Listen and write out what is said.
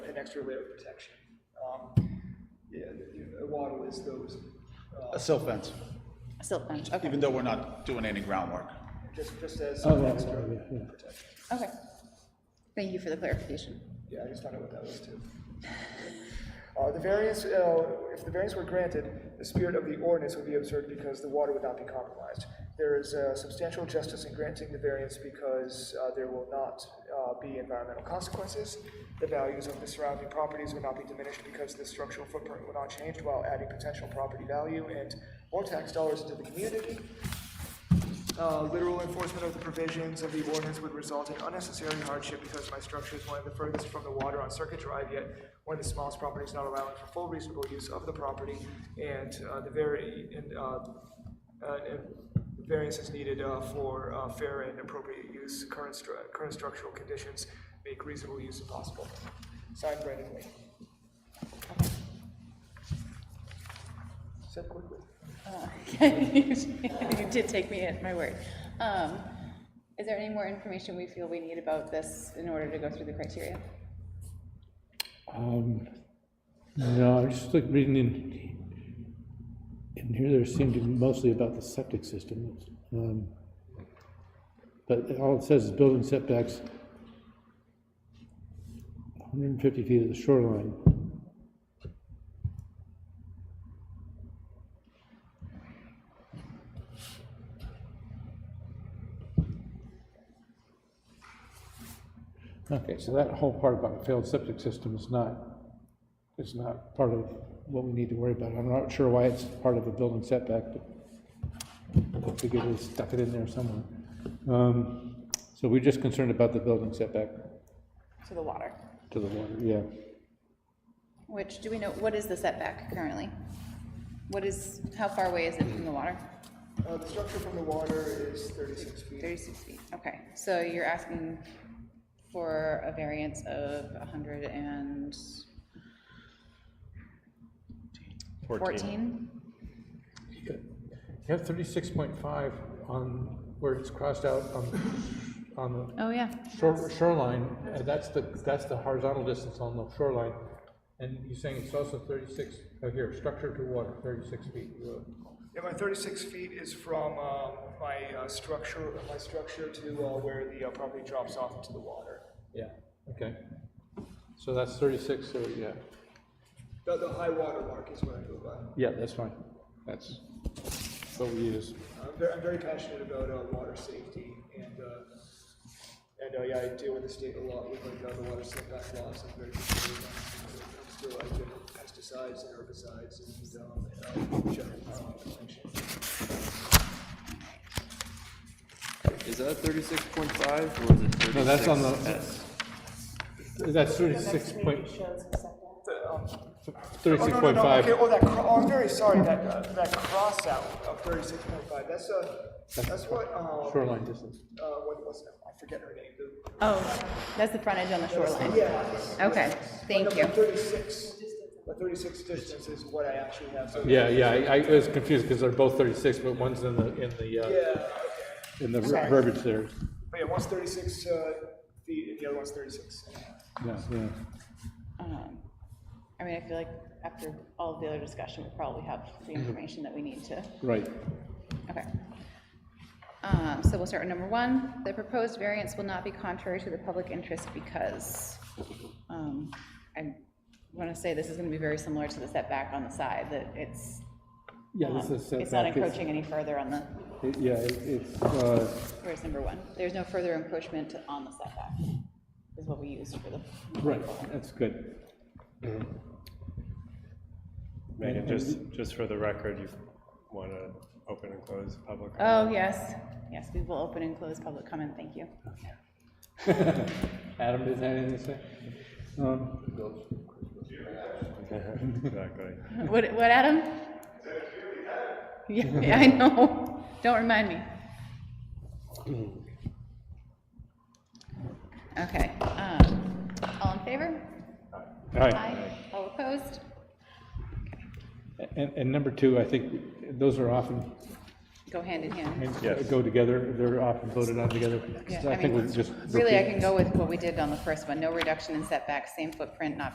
extra layer of protection. Um, Yeah, you know, Waddle is those, uh, A silt fence, Silt fence, okay, even though we're not doing any groundwork. just, just as Oh, an right, extra right, yeah, yeah. protection. okay. Thank you for the clarification. Yeah, I just found out what that was too. Uh, The variance, uh, if the variance were granted, the spirit of the ordinance would be observed because the water would not be compromised. There is uh, substantial justice in granting the variance because uh, there will not uh, be environmental consequences. The values of the surrounding properties will not be diminished because the structural footprint will not change while adding potential property value and more tax dollars into the community. Uh, Literal enforcement of the provisions of the ordinance would result in unnecessary hardship because my structure is one of the furthest from the water on Circuit Drive, yet one of the smallest properties not allowing for full reasonable use of the property, and uh, the very, and, uh, uh, and variance is needed uh, for uh, fair and appropriate use, current, stru- current structural conditions make reasonable use impossible. Signed, Brandon Lee. Said quickly. Uh, You did take me at my word. Um, Is there any more information we feel we need about this in order to go through the criteria? Um, No, I was just like reading in, in here, there seemed to be mostly about the septic system. Um, But all it says is building setbacks 150 feet of the shoreline. Okay, so that whole part about the failed septic system is not, is not part of what we need to worry about. I'm not sure why it's part of a building setback, but I figured they stuck it in there somewhere. Um, So we're just concerned about the building setback To the water, to the water, yeah. which, do we know, what is the setback currently? What is, how far away is it from the water? Uh, The structure from the water is 36 feet. 36 feet, okay. So you're asking for a variance of 100 and... 14? You have thirty-six point five on, where it's crossed out on, on Oh, yeah. the shore- shoreline, and that's the, that's the horizontal distance on the shoreline. And you're saying it's also thirty-six, oh, here, structure to water, thirty-six feet. Yeah, my thirty-six feet is from, um, my, uh, structure, my structure to, uh, where the uh, property drops off into the water. Yeah, okay. So that's thirty-six, so, yeah. The, the high water mark is what I go by. Yeah, that's fine. That's what we use. I'm very, I'm very passionate about, uh, water safety and, uh, and, uh, yeah, I deal with the state a lot with, like, uh, the water setback laws, I'm very concerned about, when it comes to, like, pesticides and herbicides and, um, and, uh, general environmental protection. Is that thirty-six point five or is it thirty-six? No, that's on the- That's thirty-six point, Oh, thirty-six no, no, point no, five. Okay, oh, that, cro- oh, I'm very sorry, that, uh, that cross out of thirty-six point five, that's a, that's what, um, Shoreline distance. uh, what was it? I forget her name, the. Oh, that's the frontage on the shoreline. Yeah. Okay, thank you. Thirty-six, the thirty-six distance is what I actually have, so. Yeah, yeah, I, I was confused because they're both thirty-six, but one's in the, in the, Yeah, uh, okay. in the verbiage there. but yeah, one's thirty-six, uh, feet, and the other one's thirty-six. Yeah, yeah. Um, I mean, I feel like after all of the other discussion, we probably have the Mm-hmm. information that we need to, Right. okay. Um, So we'll start with number one, the proposed variance will not be contrary to the public interest because um, I want to say this is going to be very similar to the setback on the side, that it's, Yeah, um, this is setback. it's not encroaching any further on the, it- Yeah, it- it's, uh, where's number one? There's no further encroachment on the setback, is what we used for the, right, that's good. Megan, just, just for the record, you want to open and close public? oh, yes, yes, we will open and close public comment, thank you. Adam, does have anything to say? Um, Exactly. What, what, Adam? Yeah, yeah, I know. Don't remind me. Okay, um, all in favor? All right, Aye. All opposed? and, and number two, I think those are often Go hand in hand. Yes. go together, they're often voted on together. Yeah, So I I think mean, we just. Really, I repeat- can go with what we did on the first one, no reduction in setback, same footprint, not